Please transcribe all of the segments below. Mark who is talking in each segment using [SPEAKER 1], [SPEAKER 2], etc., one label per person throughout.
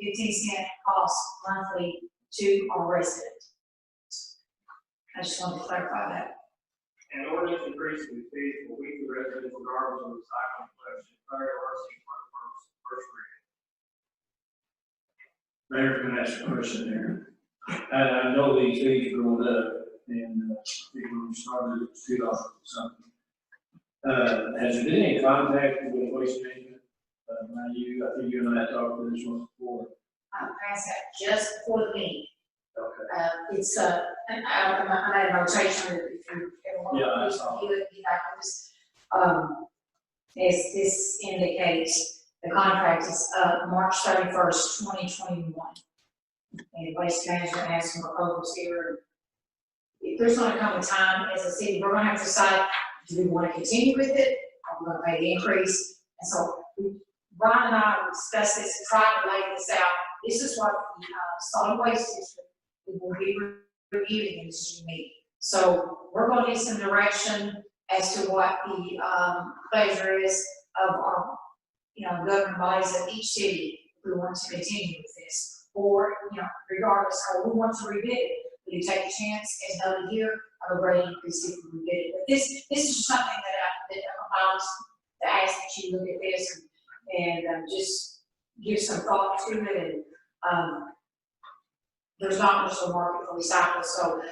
[SPEAKER 1] fifteen cent cost monthly to our residents. I just want to clarify that.
[SPEAKER 2] An ordinance increasing the fees for weekly residential garbage and recycling collection, third RC
[SPEAKER 3] Mayor,
[SPEAKER 2] one first, first reading.
[SPEAKER 3] can I ask a question there? I, I know these fees are going up, and, uh, I think when we started, it was two dollars or something. Uh, has there been any contact with waste management? Uh, now you, I think you and I talked to this one before.
[SPEAKER 1] I passed that Uh, just for the meeting.
[SPEAKER 3] Okay.
[SPEAKER 1] Uh, it's, uh, and I, I I made a notation if you, everyone.
[SPEAKER 3] Yeah, I saw.
[SPEAKER 1] You, you got this. Um, this, this indicates the contract is, uh, March thirty-first, twenty twenty-one. And Waste Management has some proposals here. If there's gonna come a time as a city, we're gonna have to decide, do we wanna continue with it? Are we gonna pay the increase? And so, we- Ron and I discussed this, tried to lay this out. This is what the, uh, solid waste district we will be reviewing this meeting. So we're gonna need some direction as to what the, um, pleasure is of our, you know, governing bodies of each city, if we want to continue with this, or, you know, regardless, or we want to rebid it. We can take a chance, as noted here, of a rate increase if we rebid it, but this, this is something that I, that I was, to ask that you look at this and, and um, just give some thought to it and, um, there's not much of a market for recycling, so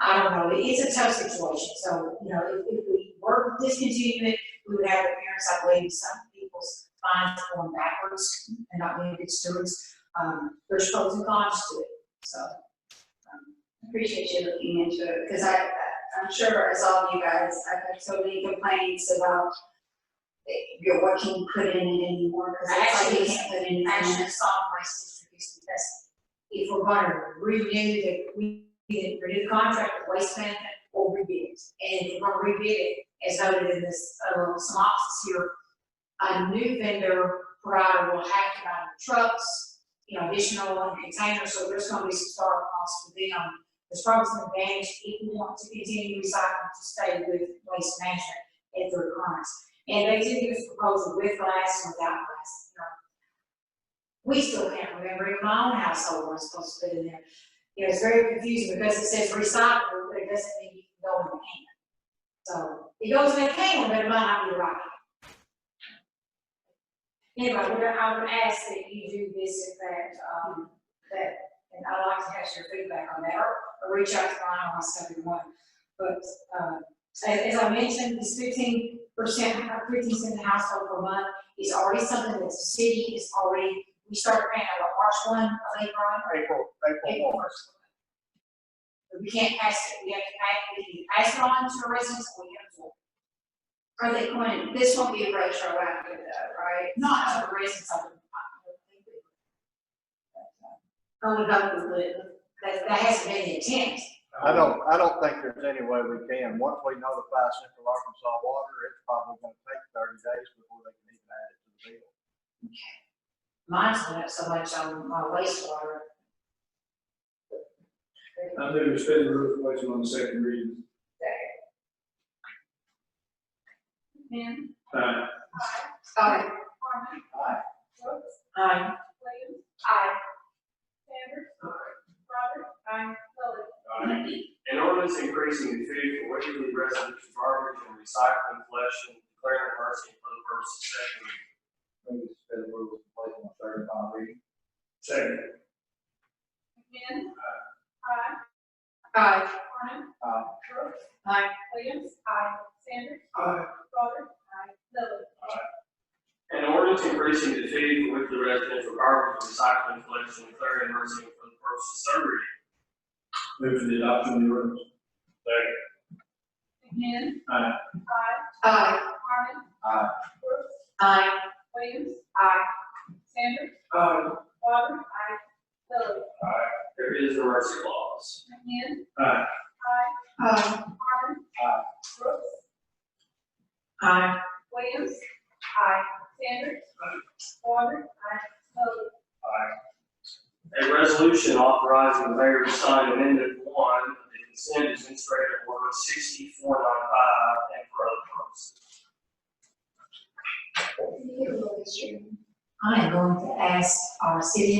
[SPEAKER 1] I don't know, it's a tough situation, so, you know, if, if we were to discontinue it, we would have the parents, I believe, some people's minds going backwards and not being good stewards, um, there's pros and cons to it, so. um,
[SPEAKER 4] Appreciate you looking into it, because I, I- I'm sure as all of you guys, I've had so many complaints about eh, your what can you put in it anymore, because it's like you
[SPEAKER 1] Actually,
[SPEAKER 4] can't put anything in
[SPEAKER 1] Action
[SPEAKER 4] it.
[SPEAKER 1] is solid waste distribution, because if we're gonna renew the, we, we renew the contract with waste management, we'll rebid it. And if we're gonna rebid it, as noted in this, uh, some options here, a new vendor provider will have to buy new trucks, you know, additional containers, so there's gonna be some start costs for them. There's probably some advantage if we want to continue recycling to stay with waste management at their current. And they did give us proposal with glass, and without glass, you know, we still can't remember even my own household was supposed to put in there. You know, it's very confusing because it says recycle, but it doesn't mean you can go in the can. So it goes in the can, but it might not be the right. can. Anyway, we're gonna, I would ask that you do this if that, um, that, and I'd like to have your feedback on that, or, or reach out to Brian or myself if you want. But, um, as, as I mentioned, this fifteen percent, fifteen cent household per month is already something that the city is already we start grant on what, March one, I think, Ron,
[SPEAKER 2] April,
[SPEAKER 1] or April first. But we can't pass it, we have to pass, we can pass it on to our residents, or we have to.
[SPEAKER 4] Are they going, to- this won't be retroactive though, right?
[SPEAKER 1] Not to the residents of the.
[SPEAKER 4] I
[SPEAKER 1] uh,
[SPEAKER 4] would hope we would.
[SPEAKER 1] That, that hasn't been the intent,
[SPEAKER 5] I don't, I don't think there's any way we can. Once we notify Central Arkansas Water, it's probably gonna take thirty days before they can even add it to the bill.
[SPEAKER 1] mine's went up so much on my wastewater.
[SPEAKER 3] I move to suspend the rules, place it on the second reading.
[SPEAKER 4] Man.
[SPEAKER 3] Aye.
[SPEAKER 4] Alright,
[SPEAKER 5] Aye.
[SPEAKER 4] I,
[SPEAKER 1] Um,
[SPEAKER 2] An ordinance increasing the fee for weekly residential garbage and recycling collection, declaring emergency for the purpose of second
[SPEAKER 5] Move to
[SPEAKER 2] reading.
[SPEAKER 5] suspend the rules and place it on third and final reading.
[SPEAKER 2] Second.
[SPEAKER 6] Again. Aye.
[SPEAKER 4] I,
[SPEAKER 6] Harmon.
[SPEAKER 5] Aye.
[SPEAKER 6] Brooks.
[SPEAKER 4] Aye.
[SPEAKER 6] Williams. Aye. Sanders.
[SPEAKER 2] Aye.
[SPEAKER 6] Goddard. Aye. Lily.
[SPEAKER 2] An ordinance increasing the fee for weekly residential garbage and recycling collection, declaring emergency for the purpose of third reading.
[SPEAKER 3] Move for the adoption of the ordinance.
[SPEAKER 2] Second.
[SPEAKER 6] Again.
[SPEAKER 3] Aye.
[SPEAKER 6] Aye.
[SPEAKER 4] I,
[SPEAKER 6] Harmon.
[SPEAKER 5] Aye.
[SPEAKER 6] Brooks.
[SPEAKER 4] I,
[SPEAKER 6] Williams. Aye. Sanders.
[SPEAKER 2] Aye.
[SPEAKER 6] Goddard. Aye. Lily.
[SPEAKER 2] There is an emergency clause.
[SPEAKER 6] Again.
[SPEAKER 3] Aye.
[SPEAKER 6] Aye.
[SPEAKER 4] I,
[SPEAKER 6] Harmon.
[SPEAKER 5] Aye.
[SPEAKER 6] Brooks.
[SPEAKER 4] I.
[SPEAKER 6] Williams. Aye. Sanders. Goddard. Aye. Lily.
[SPEAKER 2] A resolution authorizing the mayor to sign amendment one of the consent administrative order sixty-four nine five and for other purposes.
[SPEAKER 1] I am going to ask our city